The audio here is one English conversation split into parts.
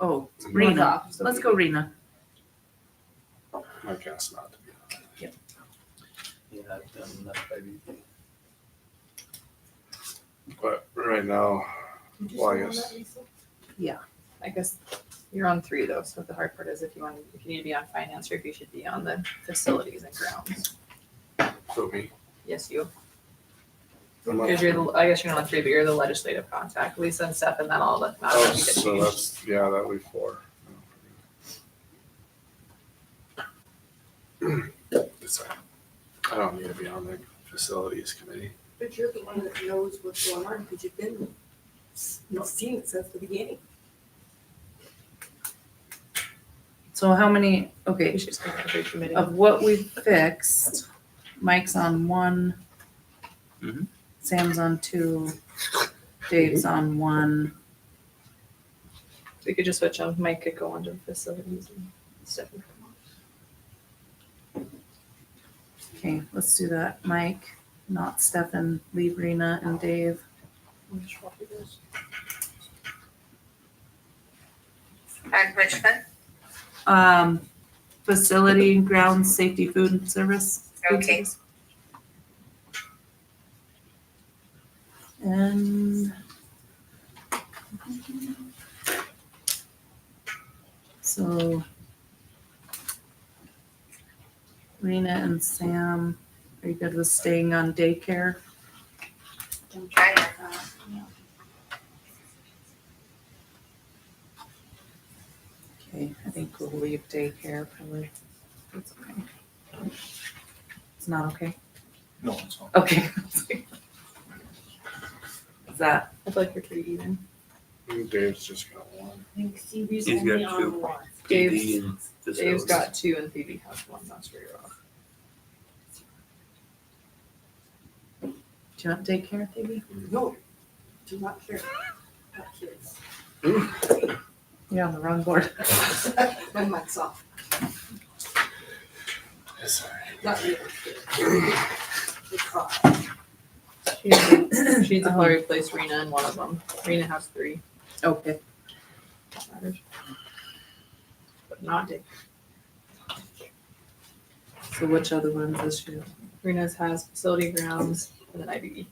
Oh, Rena. Rena. Let's go Rena. My cat's not to be. honest. Yeah, I've done enough baby. But right now, well, I guess I guess you're on three though, so the hard part is if you want, if you need to be on finance or if you should be on the facilities and grounds. so me. Yes, you, I'm not- because you're the, I guess you're not on three, but you're the legislative contact, Lisa and Steph and then all the. not Oh, you get so changed. that's yeah, that'll be four. It's fine. I don't need to be on the facilities committee. But you're the one that knows what's going on because you've been, you've seen it since the beginning. So how many, You okay, should just go to the committee. of what we fixed, Mike's on one. Mhm. Sam's on two. Dave's on one. We could just switch on, Mike could go on to the facilities and Steph. would come on. Okay, let's do that. Mike, not Stefan, leave Rena and Dave. I'm just walk you guys. And which one? Um, facility, grounds, safety, food and service. food Okay. service. And. So. Rena and Sam, are you good with staying on daycare? I am, uh, Okay, I think we'll leave daycare probably. That's okay. It's not okay? No, it's not. Okay. Is that, I feel like we're pretty even. Dave's just got one. I think Seabee's He's got only on two. one. Dave's- PD and Dave's facilities. got two and Phoebe has one, that's where you're off. do you want daycare, Phoebe? No, do not care. Not kids. You're on the wrong board. My mic's off. It's all right. Not you. It's off. She needs to Um, probably replace Rena in one of them. Rena has three, Okay. that matters. But not Dave. So which other ones is you, Rena's has facility grounds and then IBB. do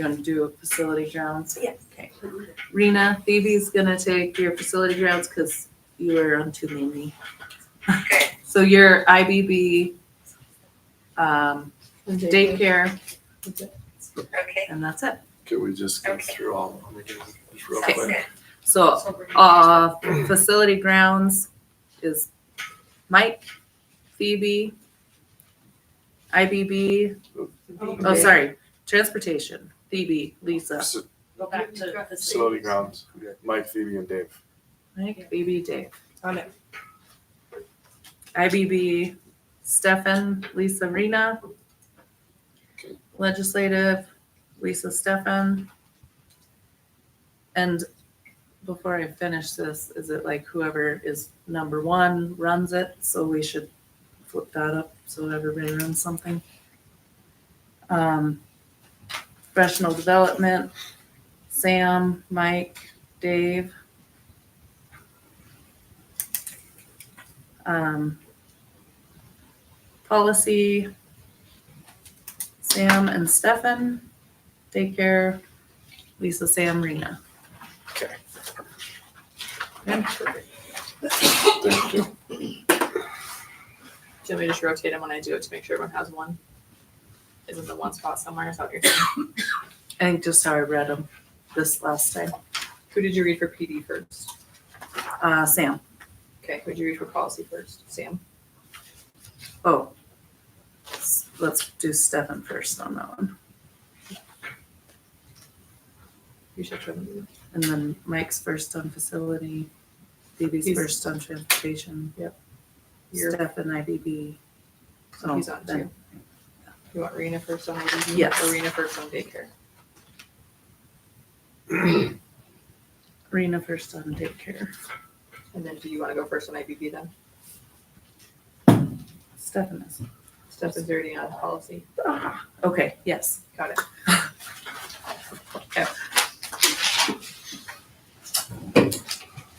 you want to do a facility grounds? Yes. Okay. Rena, Phoebe's gonna take your facility grounds because you are on too many. Okay. So your IBB, um, And Dave- daycare, okay, and that's it. Could we just go Okay. through all of them again, just real sounds quick? good. So, uh, facility grounds is Mike, Phoebe, IBB, oh, sorry, transportation, Phoebe, Lisa, Faci- Go back to the. Facility grounds, Mike, Phoebe, and Dave. Mike, Phoebe, Dave. On it. IBB, Stefan, Lisa Rena. Okay. Legislative, Lisa Stefan. And before I finish this, is it like whoever is number one runs it? So we should flip that up so everybody runs something. Um, Professional development, Sam, Mike, Dave. um, policy, Sam and Stefan, daycare, Lisa, Sam, Rena. Thank you. Do you want me to just rotate them when I do it to make sure everyone has one? Isn't the one spot somewhere? Is that what you're saying? I think just how I read them this last time. Who did you read for PD first? Uh, Sam, Okay, who did you read for policy first? Sam? oh, s- let's do Stefan first on that one. You should show them. And then Mike's first on facility, Phoebe's He's- first on transportation, You're, Stefan IBB. so he's on then- two. You want Rena first on IBB? Yes. Or Rena first on daycare? Rena first on daycare, And then do you want to go first on IBB then? Stefan is. Steph is already on policy. Ah, Okay, yes. Got it.